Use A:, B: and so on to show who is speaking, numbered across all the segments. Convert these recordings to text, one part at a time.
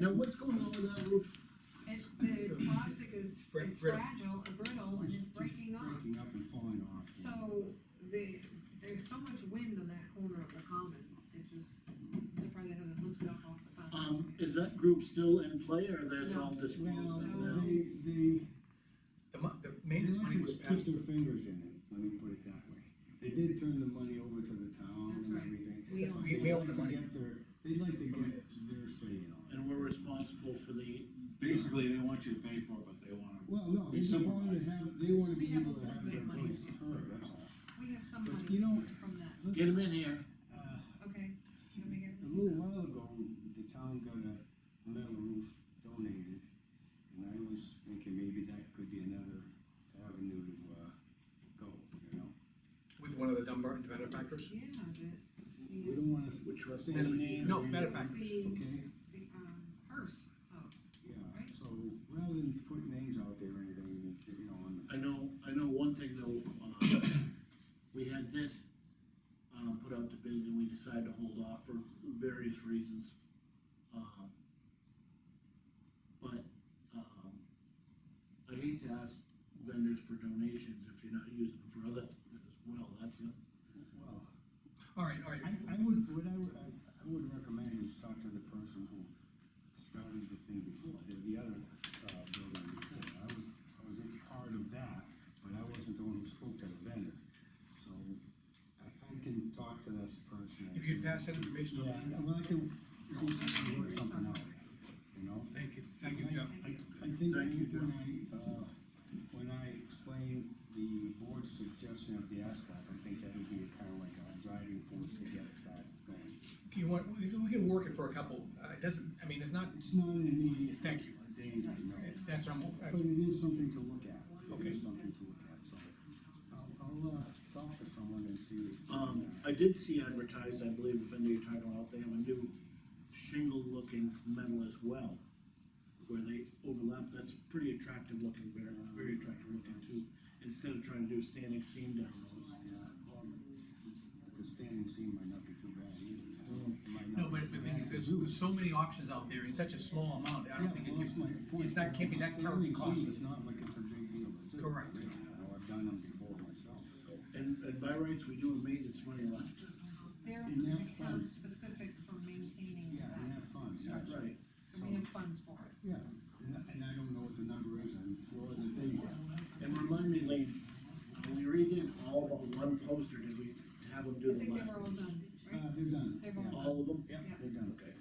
A: Now, what's going on with that roof?
B: It's, the plastic is,
C: Brit-
B: is
C: brittle.
B: fragile, and brittle, and it's breaking off.
A: Breaking up and falling off.
B: So, the, there's so much wind on that corner of the common, it just, I'm surprised it hasn't lifted up off the
D: Um,
B: foundation.
D: is that group still in play or that's all disposed
A: Well,
D: of
B: No.
D: now?
A: they, they.
C: The mon- the
A: They
C: maintenance
A: like
C: money
A: to
C: was
A: Put
C: passed,
A: their fingers in it, let me put it that way. They did turn the money over to the town
B: That's
A: and
B: right.
A: everything.
B: We own
A: but
C: it.
A: they'd
C: We own
A: like
C: the
A: to
C: money.
A: get their- They'd like to get their say in all.
D: And we're responsible for the,
E: Basically, they want you to pay for it, but they wanna.
A: Well, no, they
E: It's
A: just wanted
E: supervised.
A: to have, they wanna be
B: We have
A: able to
B: a
A: have
B: little bit
A: their
B: of money.
A: voice heard, that's all.
B: We have some
A: But
B: money
A: you know-
B: from that,
D: get them in here.
A: Uh,
B: okay? Let me get-
A: A little while ago, the town got a metal roof donated, and I was thinking maybe that could be another avenue to, uh, go, you know?
C: with one of the Dunbar and benefactors.
B: Yeah,
A: We
B: the,
A: don't wanna.
D: Which was-
A: say any names or
C: No,
A: anything,
B: the, it's
C: benefactor.
B: the,
A: Okay,
B: the, um, hearse house.
A: yeah,
B: Right.
A: so rather than put names out there or anything, you know, on
D: I know, I know one thing though, uh, we had this, um, put out to bid and we decided to hold off for various reasons. Um, But, um, I hate to ask vendors for donations if you're not using them for other things as well, that's it.
A: the, well,
C: All right, all right,
A: I, I would, what I would, I, I would recommend is talk to the person who started the thing before, the, the other, uh, building before. I was, I was in part of that, but I wasn't the one who spoke to the vendor, so I, I can talk to this person. and
C: if you'd
A: see-
C: pass that information
A: Yeah,
C: on.
A: well, I can, see if I can work something out, you know?
C: Thank you, thank you, Jeff.
A: I, I think
D: Thank you,
A: when I, uh, when I explained the board's suggestion of the asphalt, I think that would be kind of like a driving force to get that going.
C: You want, we can- we can work it for a couple, uh, it doesn't, I mean, it's not,
A: It's not an immediate.
C: Thank you.
A: Danger, no.
C: that's our, mo-
A: But
C: that's,
A: it is something to look at. It
C: Okay.
A: is something to look at, so. I'll, I'll, uh, talk to someone and see. if- uh,
D: Um, I did see advertised, I believe, if any of you title out, they have a new shingle-looking metal as well, where they overlap, that's pretty attractive looking, very, very attractive looking too, instead of trying to do standing seam down those.
A: Yeah, or The standing seam might not be too bad either. It might not
C: no, but
A: be
C: the
A: too
C: thing
A: bad
C: is,
A: to
C: there's,
A: do.
C: there's so many options out there in such a small amount, I don't think it
A: Yeah, well, that's my
C: can,
A: point.
C: it's not, can't be that terribly
A: Standing seam
C: costly.
A: is not like it's a big deal. is it?
C: Correct.
A: You know, I've done them before myself.
D: And, and by rights, we do have maintenance money left.
B: There's
A: And
B: an
A: that
B: account
A: fund-
B: specific for maintaining
A: Yeah, and have
B: that,
A: fun, yeah.
D: Right.
B: so we have funds for it.
A: Yeah, and, I- and I don't know what the number is, I'm sure that they,
D: And remind me, Lee, when we redid all but one poster, did we have them do
B: I
D: the
B: think they were
D: last?
B: all done, right?
A: uh, they're done.
B: They're
A: Yeah,
B: all-
D: All of them?
B: Yeah.
A: They're done.
D: Okay.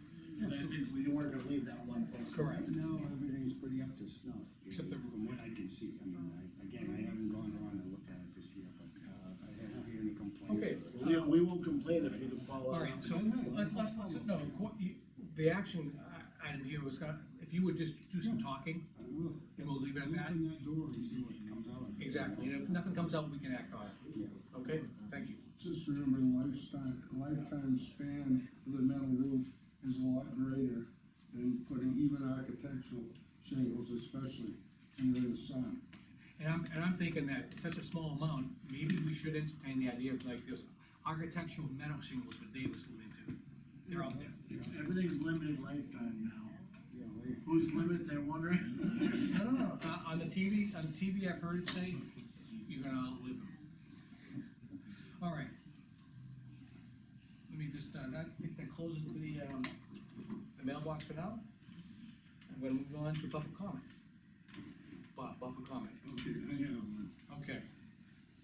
D: And I think we weren't gonna leave that one poster.
C: Correct.
A: Right now, everything's pretty up to snuff.
C: Except the-
A: From what I can see, I mean, I, again, I haven't gone around and looked at it this year, but, uh, I haven't heard any complaints.
C: Okay.
D: We, we won't complain if you can follow
C: All
D: up.
C: right, so let's, let's, let's- no, qu- you- the action uh, item here was gonna, if you would just do some talking,
A: I will.
C: and we'll leave it at that.
A: Open that door and see what comes out. of it.
C: Exactly, and if nothing comes out, we can act on it,
A: Yeah.
C: okay? Thank you.
F: Just remember the lifetime, lifetime span of the metal roof is a lot greater than putting even architectural shingles especially when you're in the sun.
C: And I'm, and I'm thinking that such a small amount, maybe we should entertain the idea of like this architectural metal shingles that Dave was alluding to. They're out there.
D: It's, everything's limited lifetime now.
A: Yeah, later.
D: Who's limit, they're wondering?
C: No, no, no. Uh, on the TV, on the TV, I've heard it say, you're gonna outlive them. All right. Let me just, uh, that, I think that closes the, um, the mailbox for now. I'm gonna move on to public comment. Bob, public comment,
F: Okay, I have one.
C: okay,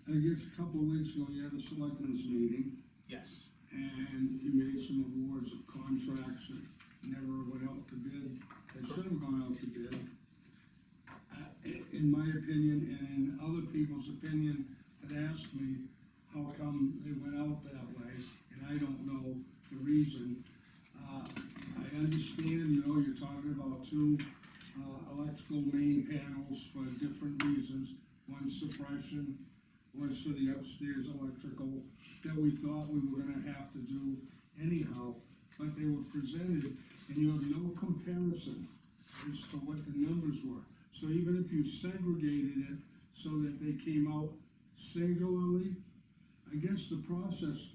F: I guess a couple of weeks ago, you had a selectmen's meeting,
C: yes.
F: and you made some awards of contracts that never went out to bid, that should have gone out to bid. Uh, i- In my opinion, and in other people's opinion, that asked me how come they went out that way, and I don't know the reason. Uh, I understand, you know, you're talking about two uh, electrical main panels for different reasons, one suppression, one's for the upstairs electrical, that we thought we were gonna have to do anyhow, but they were presented, and you have no comparison as to what the numbers were. So even if you segregated it so that they came out singularly, I guess the process